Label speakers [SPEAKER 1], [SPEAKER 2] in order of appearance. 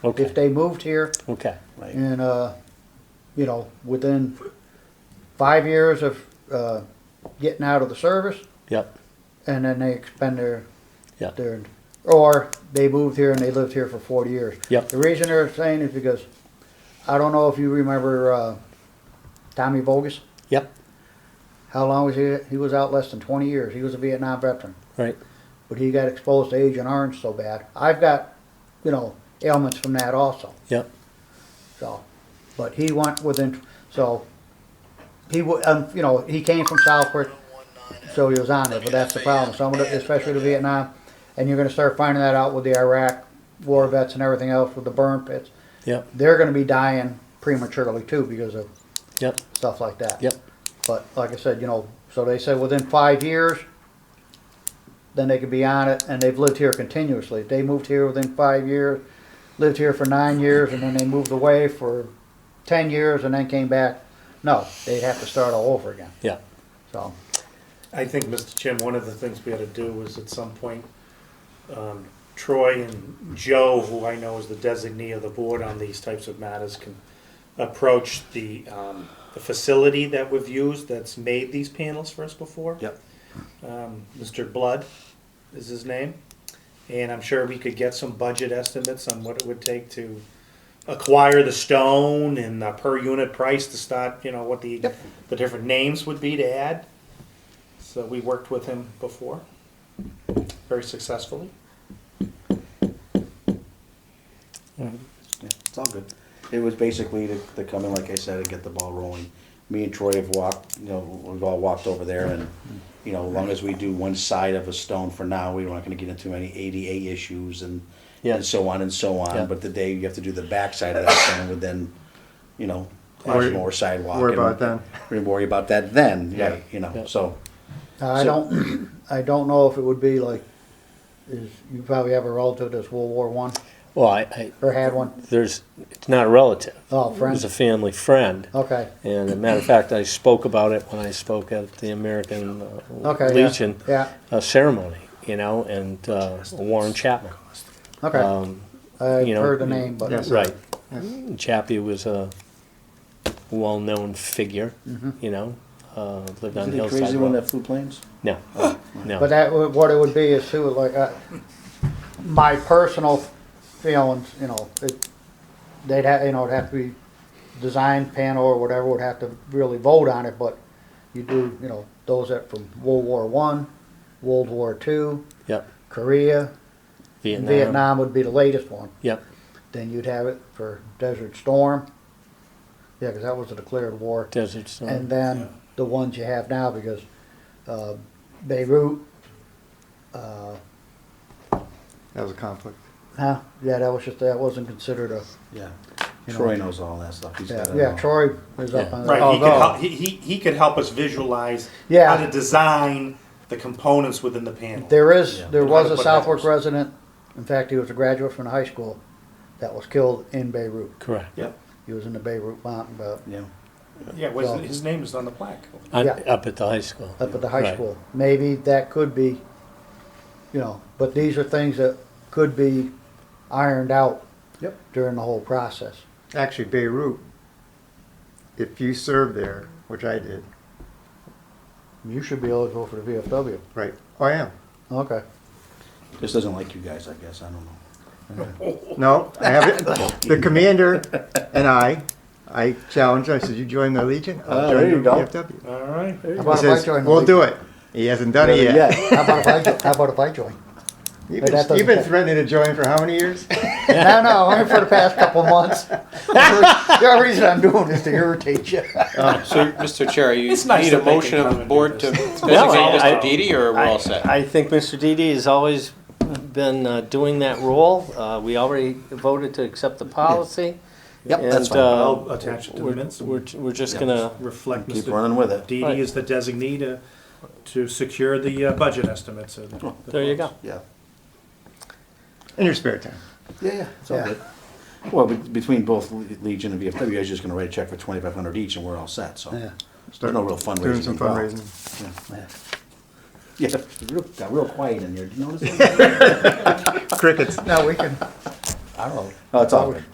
[SPEAKER 1] If
[SPEAKER 2] Okay,
[SPEAKER 1] they moved here
[SPEAKER 2] okay, right,
[SPEAKER 1] and, uh, you know, within five years of, uh, getting out of the service,
[SPEAKER 2] yep,
[SPEAKER 1] and then they expend their,
[SPEAKER 2] yep,
[SPEAKER 1] their, or they moved here and they lived here for forty years.
[SPEAKER 2] Yep.
[SPEAKER 1] The reason they're saying is because, I don't know if you remember, uh, Tommy Bogus,
[SPEAKER 2] yep,
[SPEAKER 1] how long was he, he was out less than twenty years, he was a Vietnam veteran.
[SPEAKER 2] right,
[SPEAKER 1] but he got exposed to Agent Orange so bad. I've got, you know, ailments from that also.
[SPEAKER 2] yep,
[SPEAKER 1] So, but he went within. So he, wa- um, you know, he came from Southport, so he was on it. But that's the problem. Some of the, especially the Vietnam, and you're going to start finding that out with the Iraq war vets and everything else with the burn pits.
[SPEAKER 2] yep,
[SPEAKER 1] They're going to be dying prematurely too because of
[SPEAKER 2] yep,
[SPEAKER 1] stuff like that.
[SPEAKER 2] yep,
[SPEAKER 1] But like I said, you know, so they said within five years, then they could be on it, and they've lived here continuously. If they moved here within five years, lived here for nine years, and then they moved away for ten years and then came back, no, they'd have to start all over again.
[SPEAKER 2] yeah,
[SPEAKER 1] So,
[SPEAKER 3] I think, Mr. Chairman, one of the things we ought to do is at some point, um, Troy and Joe, who I know is the designee of the board on these types of matters, can approach the, um, the facility that we've used that's made these panels for us before.
[SPEAKER 2] Yep.
[SPEAKER 3] Um, Mr. Blood is his name, and I'm sure we could get some budget estimates on what it would take to acquire the stone and the per unit price to start, you know, what the, the different names would be to add. So we worked with him before, very successfully.
[SPEAKER 4] Yeah, it's all good. It was basically to, to come in, like I said, and get the ball rolling. Me and Troy have walked, you know, we've all walked over there and, you know, as long as we do one side of a stone for now, we're not gonna get into any ADA issues and,
[SPEAKER 2] Yeah.
[SPEAKER 4] and so on and so
[SPEAKER 2] Yeah.
[SPEAKER 4] on. But the day you have to do the backside of that stone would then, you know, cause
[SPEAKER 5] Worry-
[SPEAKER 4] more sidewalk.
[SPEAKER 5] worry
[SPEAKER 4] and-
[SPEAKER 5] about it then.
[SPEAKER 4] We worry about that then,
[SPEAKER 5] Yeah.
[SPEAKER 4] right, you
[SPEAKER 2] Yeah.
[SPEAKER 4] know, so,
[SPEAKER 1] now, I
[SPEAKER 4] So-
[SPEAKER 1] don't, I don't know if it would be like, is, you probably have a relative that's World War One,
[SPEAKER 2] well, I, I,
[SPEAKER 1] or had one,
[SPEAKER 2] there's, it's not a relative.
[SPEAKER 1] oh,
[SPEAKER 2] It was a
[SPEAKER 1] friend, Oh.
[SPEAKER 2] family friend,
[SPEAKER 1] okay,
[SPEAKER 2] and as a matter of fact, I spoke about it when I spoke at the American uh,
[SPEAKER 1] okay, yeah,
[SPEAKER 2] Legion
[SPEAKER 1] yeah,
[SPEAKER 2] uh, ceremony, you know, and uh, Warren Chapman.
[SPEAKER 1] okay.
[SPEAKER 2] Um,
[SPEAKER 1] I've
[SPEAKER 2] you know,
[SPEAKER 1] heard the name, but.
[SPEAKER 5] Yes.
[SPEAKER 2] Right. Chappie was a well-known figure,
[SPEAKER 1] Mm-hmm.
[SPEAKER 2] you know, uh, lived on
[SPEAKER 4] isn't he
[SPEAKER 2] Hillside
[SPEAKER 4] crazy when
[SPEAKER 2] Road.
[SPEAKER 4] that flew planes?
[SPEAKER 2] No, no.
[SPEAKER 1] Oh. But that, would- what it would be is too, like, uh, my personal feelings, you know, it, they'd have, you know, it'd have to be design panel or whatever would have to really vote on it, but you do, you know, those that from World War One, World War Two,
[SPEAKER 2] Yep.
[SPEAKER 1] Korea, and
[SPEAKER 2] Vietnam.
[SPEAKER 1] Vietnam would be the latest one.
[SPEAKER 2] Yep.
[SPEAKER 1] Then you'd have it for Desert Storm. Yeah, because that was a declared war
[SPEAKER 2] Desert Storm.
[SPEAKER 1] and then the ones you have now because uh, Beirut, uh,
[SPEAKER 5] That was a conflict.
[SPEAKER 1] huh? Yeah, that was just that wasn't considered a.
[SPEAKER 4] Yeah.
[SPEAKER 1] You know-
[SPEAKER 4] Troy knows all that stuff. He's
[SPEAKER 1] Yeah,
[SPEAKER 4] gotta
[SPEAKER 1] yeah
[SPEAKER 4] know.
[SPEAKER 1] Troy is up
[SPEAKER 2] Yeah.
[SPEAKER 1] on
[SPEAKER 3] Right, he could,
[SPEAKER 1] Uh, although-
[SPEAKER 3] help, he, he, he could help us visualize
[SPEAKER 1] Yeah.
[SPEAKER 3] how to design the components within the panel.
[SPEAKER 1] There is
[SPEAKER 4] Yeah.
[SPEAKER 1] there
[SPEAKER 3] And
[SPEAKER 1] was
[SPEAKER 3] how to
[SPEAKER 1] a
[SPEAKER 3] put
[SPEAKER 1] Southwark
[SPEAKER 3] methods.
[SPEAKER 1] resident. In fact, he was a graduate from the high school that was killed in Beirut.
[SPEAKER 2] Correct.
[SPEAKER 4] Yep,
[SPEAKER 1] He was in the Beirut mountain, but
[SPEAKER 4] yeah.
[SPEAKER 3] Yeah, was, his name is on the plaque.
[SPEAKER 2] On-
[SPEAKER 1] yeah.
[SPEAKER 2] Up at the high school.
[SPEAKER 1] up at the high
[SPEAKER 2] Right.
[SPEAKER 1] school. Maybe that could be, you know, but these are things that could be ironed out
[SPEAKER 4] Yep.
[SPEAKER 1] during the whole process.
[SPEAKER 5] Actually, Beirut, if you served there, which I did,
[SPEAKER 1] You should be eligible for the VFW.
[SPEAKER 5] right, oh, I am.
[SPEAKER 1] Okay.
[SPEAKER 4] Just doesn't like you guys, I guess, I don't know.
[SPEAKER 5] No, I have it. The commander and I, I challenged him. I said, you join the Legion? I'll
[SPEAKER 4] Ah,
[SPEAKER 5] join
[SPEAKER 4] there you
[SPEAKER 5] the
[SPEAKER 4] go.
[SPEAKER 5] VFW."
[SPEAKER 3] All right.
[SPEAKER 1] How
[SPEAKER 5] He
[SPEAKER 1] about if I
[SPEAKER 5] says,
[SPEAKER 1] join? the
[SPEAKER 5] we'll
[SPEAKER 1] league?
[SPEAKER 5] do it. He hasn't done it
[SPEAKER 4] Better
[SPEAKER 5] yet.
[SPEAKER 4] yet.
[SPEAKER 1] How about if I, jo- how about if I join?
[SPEAKER 5] You've
[SPEAKER 1] But that
[SPEAKER 5] been,
[SPEAKER 1] doesn't
[SPEAKER 5] you've been
[SPEAKER 1] count.
[SPEAKER 5] threatening to join for how many years?
[SPEAKER 1] No, no, only for the past couple months. The only reason I'm doing this to irritate you.
[SPEAKER 6] So, Mr. Chair, you
[SPEAKER 3] It's nice
[SPEAKER 6] need
[SPEAKER 3] that they
[SPEAKER 6] a
[SPEAKER 3] can
[SPEAKER 6] motion
[SPEAKER 3] come
[SPEAKER 6] of the
[SPEAKER 3] and do
[SPEAKER 6] board to
[SPEAKER 3] this.
[SPEAKER 6] designate
[SPEAKER 2] Well, I-
[SPEAKER 6] Mr.
[SPEAKER 2] I-
[SPEAKER 6] Didi, or we're all set?
[SPEAKER 2] I think Mr. Didi has always been uh, doing that role. Uh, We already voted to accept the policy.
[SPEAKER 4] Yep, that's
[SPEAKER 2] and,
[SPEAKER 4] fine.
[SPEAKER 2] uh,
[SPEAKER 3] I'll attach it to the
[SPEAKER 2] we're-
[SPEAKER 3] minutes.
[SPEAKER 2] We're, we're just
[SPEAKER 4] Yeah.
[SPEAKER 2] gonna,
[SPEAKER 3] Reflect
[SPEAKER 4] Keep
[SPEAKER 3] Mr.
[SPEAKER 4] running with it.
[SPEAKER 3] Dede
[SPEAKER 2] Right.
[SPEAKER 3] is the designee to, to secure the uh, budget estimates. and the
[SPEAKER 2] there you go.
[SPEAKER 3] funds.
[SPEAKER 4] Yeah.
[SPEAKER 5] In your spare time.
[SPEAKER 4] Yeah, yeah, it's
[SPEAKER 1] Yeah.
[SPEAKER 4] all good. Well, be- between both Le- Legion and VFW, you guys are just gonna write a check for twenty-five hundred each and we're all set, so.
[SPEAKER 1] Yeah.
[SPEAKER 4] There's no real
[SPEAKER 5] Doing
[SPEAKER 4] fundraising
[SPEAKER 5] some
[SPEAKER 4] involved.
[SPEAKER 5] fundraising.
[SPEAKER 4] Yeah, it's real- got real quiet in here, did you notice? that?
[SPEAKER 5] Crickets.
[SPEAKER 1] No, we can, I don't know.
[SPEAKER 4] No, Oh, it's all good.